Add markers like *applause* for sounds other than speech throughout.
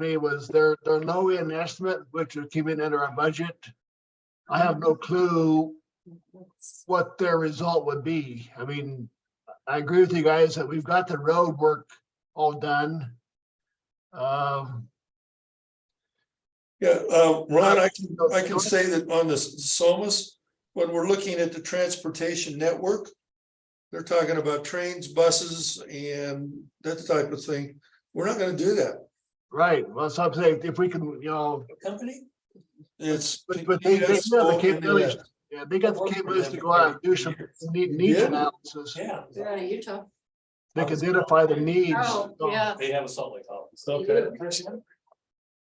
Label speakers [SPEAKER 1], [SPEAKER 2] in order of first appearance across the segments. [SPEAKER 1] me was they're, they're low in estimate, which would keep it under our budget. I have no clue what their result would be. I mean, I agree with you guys that we've got the road work all done. Um,
[SPEAKER 2] Yeah, uh, Ron, I can, I can say that on the SOMAS, when we're looking at the transportation network. They're talking about trains, buses and that type of thing. We're not gonna do that.
[SPEAKER 1] right, well, so I'm saying if we can, you know,
[SPEAKER 2] Company? It's.
[SPEAKER 1] But- but they- they
[SPEAKER 2] PBS
[SPEAKER 1] have the
[SPEAKER 2] won't do
[SPEAKER 1] capabilities.
[SPEAKER 2] that.
[SPEAKER 1] yeah, they got the capabilities to go out and do some need, needs analysis.
[SPEAKER 3] Yeah.
[SPEAKER 4] They're out of Utah.
[SPEAKER 1] They can identify the needs.
[SPEAKER 4] Oh, yeah.
[SPEAKER 3] They have a Salt Lake office.
[SPEAKER 4] Okay.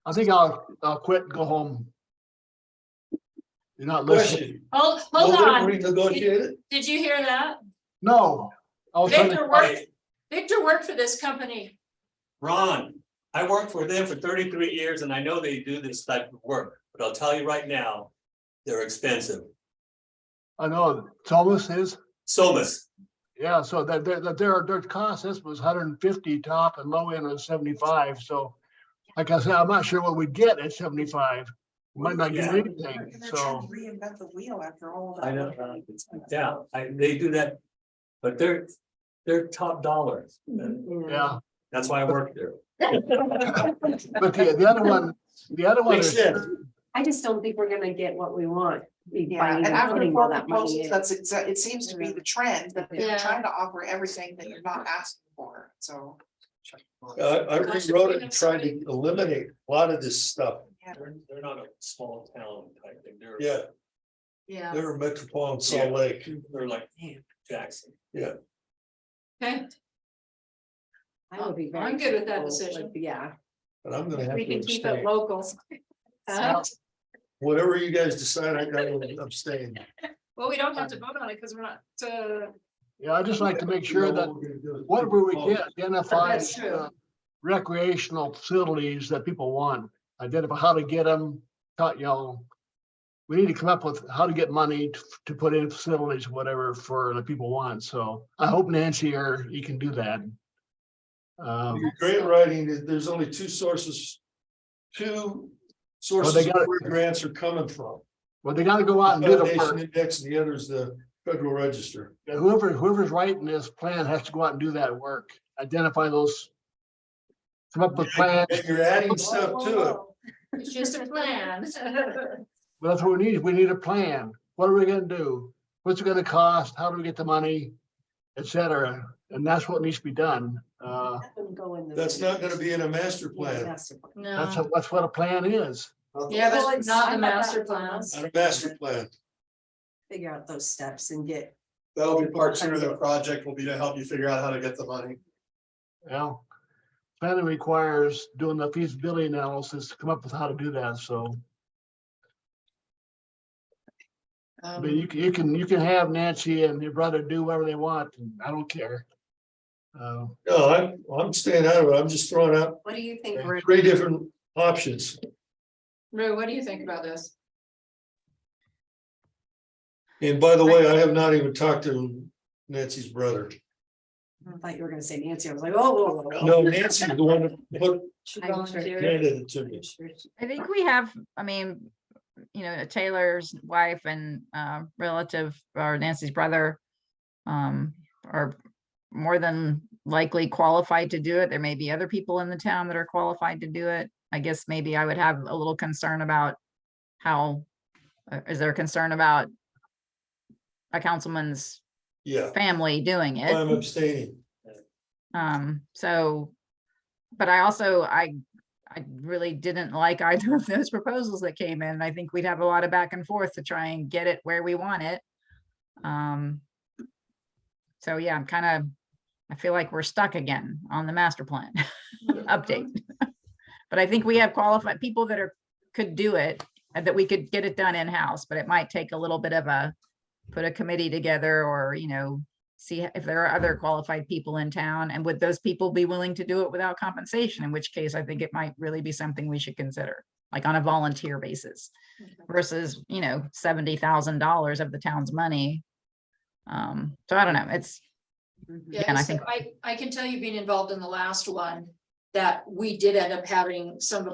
[SPEAKER 1] I think I'll, I'll quit and go home. You're not listening.
[SPEAKER 2] Question.
[SPEAKER 4] Hold,
[SPEAKER 2] Will
[SPEAKER 4] hold
[SPEAKER 2] they
[SPEAKER 4] on.
[SPEAKER 2] Renegotiate it?
[SPEAKER 4] Did you hear that?
[SPEAKER 1] No. I was trying
[SPEAKER 4] Victor
[SPEAKER 1] to-
[SPEAKER 4] worked, Victor worked for this company.
[SPEAKER 3] Ron, I worked for them for thirty-three years and I know they do this type of work, but I'll tell you right now, they're expensive.
[SPEAKER 1] I know, Thomas is,
[SPEAKER 3] Somas,
[SPEAKER 1] yeah, so that, that, that their, their cost, this was hundred and fifty top and low end was seventy-five, so. Like I said, I'm not sure what we get at seventy-five, might not get
[SPEAKER 3] Yeah.
[SPEAKER 1] anything, so,
[SPEAKER 5] Reinvent the wheel after all.
[SPEAKER 3] I know, Ron, yeah, I, they do that, but they're, they're top dollars.
[SPEAKER 6] Mm-hmm.
[SPEAKER 1] yeah.
[SPEAKER 3] That's why I worked there.
[SPEAKER 1] But the, the other one, the other one
[SPEAKER 2] Makes
[SPEAKER 1] is,
[SPEAKER 2] sense.
[SPEAKER 6] I just don't think we're gonna get what we want. by
[SPEAKER 5] Yeah, and
[SPEAKER 6] even
[SPEAKER 5] after
[SPEAKER 6] putting all
[SPEAKER 5] four
[SPEAKER 6] that money
[SPEAKER 5] proposals,
[SPEAKER 6] in.
[SPEAKER 5] that's exa- it seems to be the trend, that
[SPEAKER 4] Yeah.
[SPEAKER 5] they're trying to offer everything that you're not asking for, so.
[SPEAKER 2] I, I rewrote it and tried to eliminate a lot of this stuff.
[SPEAKER 3] They're, they're not a small town type thing, they're.
[SPEAKER 2] Yeah,
[SPEAKER 4] Yeah,
[SPEAKER 2] they're metropolitan Salt Lake.
[SPEAKER 3] They're like Jackson.
[SPEAKER 4] okay,
[SPEAKER 6] I would be very
[SPEAKER 4] I'm good with that
[SPEAKER 6] careful,
[SPEAKER 4] decision.
[SPEAKER 6] like, Yeah.
[SPEAKER 2] And I'm gonna have
[SPEAKER 6] We
[SPEAKER 2] to
[SPEAKER 6] can keep it
[SPEAKER 2] abstain.
[SPEAKER 6] local.
[SPEAKER 4] *laughs* Uh,
[SPEAKER 2] Whatever you guys decide, I gotta abstain.
[SPEAKER 4] well, we don't have to vote on it because we're not, uh,
[SPEAKER 1] yeah, I just like to make sure that whatever we
[SPEAKER 2] Oh,
[SPEAKER 1] get, identify
[SPEAKER 4] That's true.
[SPEAKER 1] uh, recreational facilities that people want, identify how to get them, not, you know. We need to come up with how to get money to, to put in facilities, whatever, for the people want, so I hope Nancy or you can do that. Um,
[SPEAKER 2] Your Grant writing, there- there's only two sources. Two sources
[SPEAKER 1] Well, they
[SPEAKER 2] of
[SPEAKER 1] got it.
[SPEAKER 2] where grants are coming from.
[SPEAKER 1] well, they gotta go out and do the
[SPEAKER 2] Foundation
[SPEAKER 1] work,
[SPEAKER 2] Index, and the other is the Federal Register.
[SPEAKER 1] whoever, whoever's writing this plan has to go out and do that work, identify those. Come up with plans,
[SPEAKER 2] And you're adding stuff to it.
[SPEAKER 4] it's
[SPEAKER 1] *laughs*
[SPEAKER 4] just a plan.
[SPEAKER 1] Well, That's what we need. We need a plan. What are we gonna do? What's it gonna cost? How do we get the money? Et cetera. And that's what needs to be done. Uh,
[SPEAKER 6] Let them go in the-
[SPEAKER 2] That's not gonna be in a master plan,
[SPEAKER 6] Master plan.
[SPEAKER 1] that's,
[SPEAKER 4] *laughs* No,
[SPEAKER 1] a- that's what a plan is.
[SPEAKER 4] yeah,
[SPEAKER 6] Well,
[SPEAKER 4] but
[SPEAKER 6] it's-
[SPEAKER 4] not
[SPEAKER 6] I
[SPEAKER 4] the
[SPEAKER 6] thought that
[SPEAKER 4] master
[SPEAKER 6] was on
[SPEAKER 4] plan.
[SPEAKER 6] us.
[SPEAKER 2] not a master plan.
[SPEAKER 6] Figure out those steps and get,
[SPEAKER 2] That'll
[SPEAKER 6] be part two of the
[SPEAKER 2] project will be to help you figure out how to get the money.
[SPEAKER 1] Well, planning requires doing the feasibility analysis to come up with how to do that. So, I mean, you
[SPEAKER 4] Um,
[SPEAKER 1] can, you can, you can have Nancy and your brother do whatever they want. and I don't care. Uh,
[SPEAKER 2] No, I'm, I'm staying out of it. I'm just throwing out
[SPEAKER 6] what do you think, Rick?
[SPEAKER 2] three different options.
[SPEAKER 4] Rue, what do you think about this?
[SPEAKER 2] And by the way, I have not even talked to Nancy's brother.
[SPEAKER 6] I thought you were gonna say Nancy, I was like, oh, whoa, whoa, whoa.
[SPEAKER 2] No, Nancy's the one that put
[SPEAKER 6] I'm sure-
[SPEAKER 2] handed it to me.
[SPEAKER 6] I'm sure she-
[SPEAKER 7] I think we have, I mean, you know, Taylor's wife and uh, relative or Nancy's brother um, are more than likely qualified to do it. There may be other people in the town that are qualified to do it. I guess maybe I would have a little concern about how, uh, is there concern about a councilman's
[SPEAKER 2] Yeah,
[SPEAKER 7] family doing it?
[SPEAKER 2] I'm abstaining.
[SPEAKER 7] Um, so, but I also, I, I really didn't like either of those proposals that came in. I think we'd have a lot of back and forth to try and get it where we want it. Um, so yeah, I'm kind of, I feel like we're stuck again on the master plan *laughs* update. *laughs* But I think we have qualified people that are, could do it, and that we could get it done in-house, but it might take a little bit of a, put a committee together or, you know, see if there are other qualified people in town and would those people be willing to do it without compensation, in which case I think it might really be something we should consider, like on a volunteer basis versus, you know, seventy thousand dollars of the town's money. Um, so I don't know, it's,
[SPEAKER 6] Mhm.
[SPEAKER 4] Yeah,
[SPEAKER 7] and I
[SPEAKER 4] so
[SPEAKER 7] think-
[SPEAKER 4] I, I can tell you being involved in the last one, that we did end up having some of